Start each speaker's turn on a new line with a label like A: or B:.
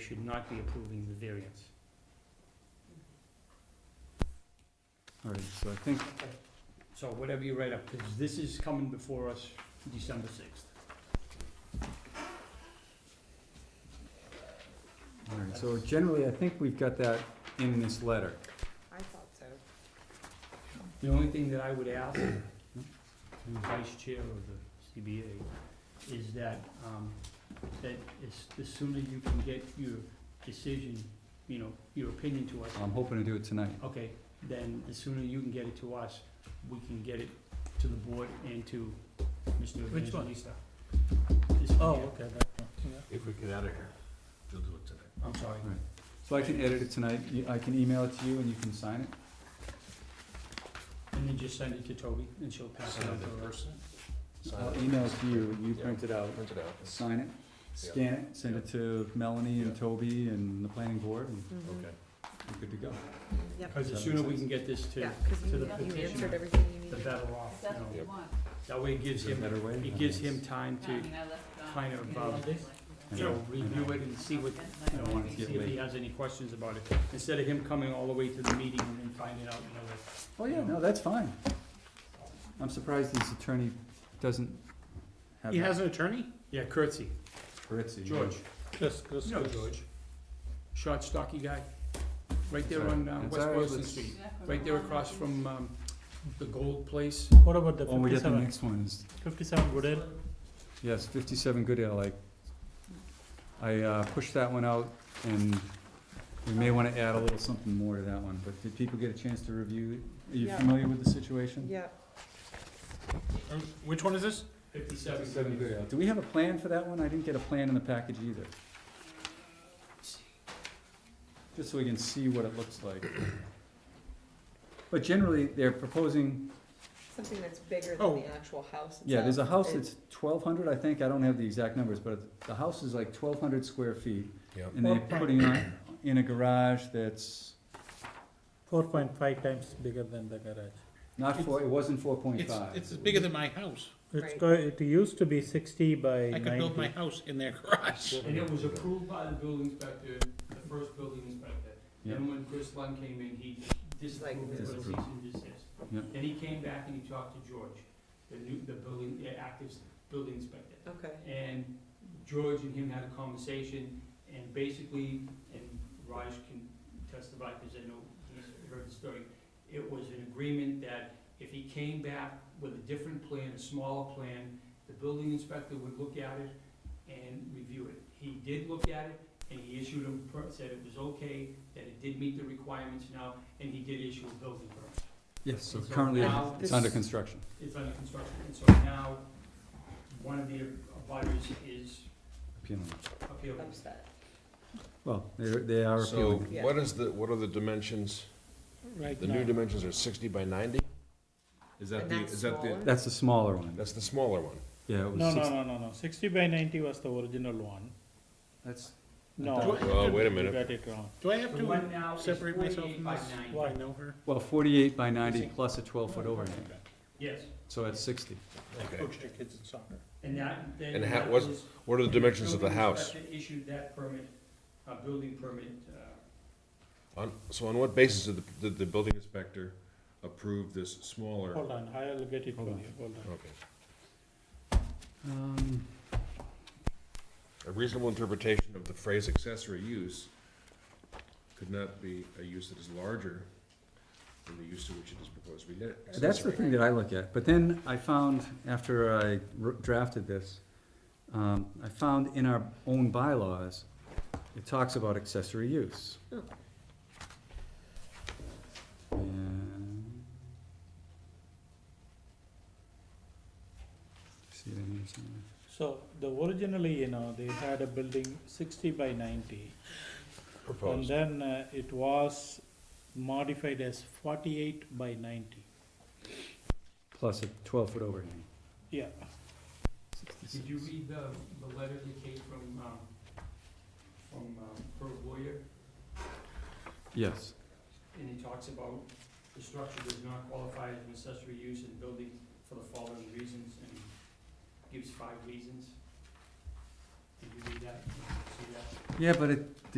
A: should not be approving the variance.
B: All right, so I think,
A: So whatever you write up, because this is coming before us December sixth.
B: all right, so generally, I think we've got that in this letter.
C: I thought so.
A: The only thing that I would ask, the vice chair of the CBA, is that, um, that as, the sooner you can get your decision, you know, your opinion to us,
B: I'm hoping to do it tonight.
A: okay, then the sooner you can get it to us, we can get it to the board and to Mr.
D: Which one?
A: Evangelista.
D: Oh, okay, that one, yeah.
E: If we get out of here, we'll do it today.
A: I'm sorry.
B: So I can edit it tonight, You- I can email it to you and you can sign it?
A: And then just send it to Toby and she'll pass it
E: Send
A: on
E: it
A: to
E: to
A: her.
B: I'll email it to you, you
E: Yeah.
B: print it out,
E: Print it out.
B: sign it, scan it, send it to Melanie and Toby and the planning board, and
D: Mm-hmm.
E: Okay.
B: we're good to go.
A: Because the sooner we can get this to,
C: Yeah, because
A: to the
C: you, you answered
A: petitioner,
C: everything you
A: the
C: needed.
A: better off, you know.
E: Yep.
A: That way it gives
B: Is there a
A: him,
B: better way?
A: it gives him time to kind of, um,
B: I
A: you know,
B: know, I
A: review
B: know.
A: it and see what,
B: I don't want it to
A: see
B: get
A: if he
B: late.
A: has any questions about it. Instead of him coming all the way to the meeting and then finding out, you know, that,
B: Oh, yeah, no, that's fine. I'm surprised his attorney doesn't have.
D: He has an attorney?
A: yeah, curtsy,
B: Ritzy.
A: George,
D: Yes, yes,
A: you know
D: yes.
A: George. Short, stocky guy, right
B: It's
A: there
B: all
A: on,
B: right.
A: uh,
B: It's
A: West
B: all right,
A: Boylston
B: let's-
A: Street, right there across from, um, the Gold Place.
D: What about the
B: Oh, we got the
D: fifty-seven,
B: next one is,
D: fifty-seven Goodell?
B: yes, fifty-seven Goodale, I, I uh, pushed that one out, and we may wanna add a little something more to that one, but did people get a chance to review? it? Are you
C: Yeah.
B: familiar with the situation?
C: Yeah,
D: Um, Which one is this?
A: Fifty-seven.
B: Do we have a plan for that one? I didn't get a plan in the package either. Just so we can see what it looks like. But generally, they're proposing,
C: something that's bigger
D: Oh.
C: than the actual house itself.
B: yeah, there's a house
C: It-
B: that's twelve hundred, I think, I don't have the exact numbers, but the house is like twelve hundred square feet.
E: Yep.
B: And they're putting on, in a garage that's
D: Four point five times bigger than the garage.
B: not four, it wasn't four point
F: It's,
B: five.
F: it's bigger than my house.
D: It's
C: Right.
D: go, it used to be sixty by
F: I could build my
D: ninety.
F: house in their garage.
A: And it was approved by the building inspector, the first building inspector.
B: Yeah.
A: And when Chris Lund came in, he disapproved it with a cease
B: Disapproved.
A: and desist.
B: Yeah.
A: Then he came back and he talked to George, the new, the building, the active building inspector.
C: Okay,
A: And George and him had a conversation, and basically, and Raj can testify, because I know he's heard the story. It was an agreement that if he came back with a different plan, a smaller plan, the building inspector would look at it and review it. He did look at it, and he issued him, per- said it was okay, that it did meet the requirements now, and he did issue a building permit.
B: Yes, so
A: So
B: currently,
A: now
B: it's
C: this-
B: under construction.
A: It's under construction, and so now, one of the abutters is
B: Appealing.
A: appealing.
C: upset.
B: Well, they, they are
E: So
B: appealing.
C: Yeah.
E: what is the, what are the dimensions?
F: Right
E: The new
F: now,
E: dimensions are sixty by ninety? Is that
C: And
E: the,
C: that's
E: is that the,
C: smaller?
B: That's the smaller one.
E: that's the smaller one?
B: Yeah, it
F: no,
B: was
F: no,
B: six.
F: no, no, no, sixty by ninety was the original one.
B: That's,
F: No.
E: Well, wait a
F: You
E: minute.
F: got it wrong.
D: Do I have
A: The one now is
D: separate myself
A: forty-eight
D: from
A: by
D: this?
A: nine.
D: Why, know her?
B: well, forty-eight by ninety plus a twelve-foot overhang,
A: Yes,
B: so that's sixty.
D: I
E: Okay.
D: coached the kids in soccer.
A: and that, then.
E: And how-
A: that
E: was- What are the dimensions of the
A: building
E: house?
A: inspector Issued that permit, uh, building permit, uh,
E: On, so on what basis did the, did the building inspector approve this smaller?
C: Oh.
D: Hold on, I'll get it for
B: Hold
D: you,
B: on.
D: hold on.
E: Okay.
B: Um,
E: A reasonable interpretation of the phrase accessory use could not be a use that is larger than the use to which it is proposed to be ne- accessory.
B: That's the thing that I look at, but then I found, after I wr- drafted this, um, I found in our own bylaws, it talks about accessory use.
C: Oh.
B: And- See it in here somewhere?
D: So, the originally, you know, they had a building sixty by ninety. And
E: Proposed.
D: then uh, it was modified as forty-eight by ninety.
B: Plus a twelve-foot overhang.
D: Yeah,
A: did you read the, the letter that came from, um, from, um, her lawyer?
B: Yes,
A: And he talks about the structure does not qualify as an accessory use in building for the following reasons, and gives five reasons. Did you read that? See that?
B: yeah, but it,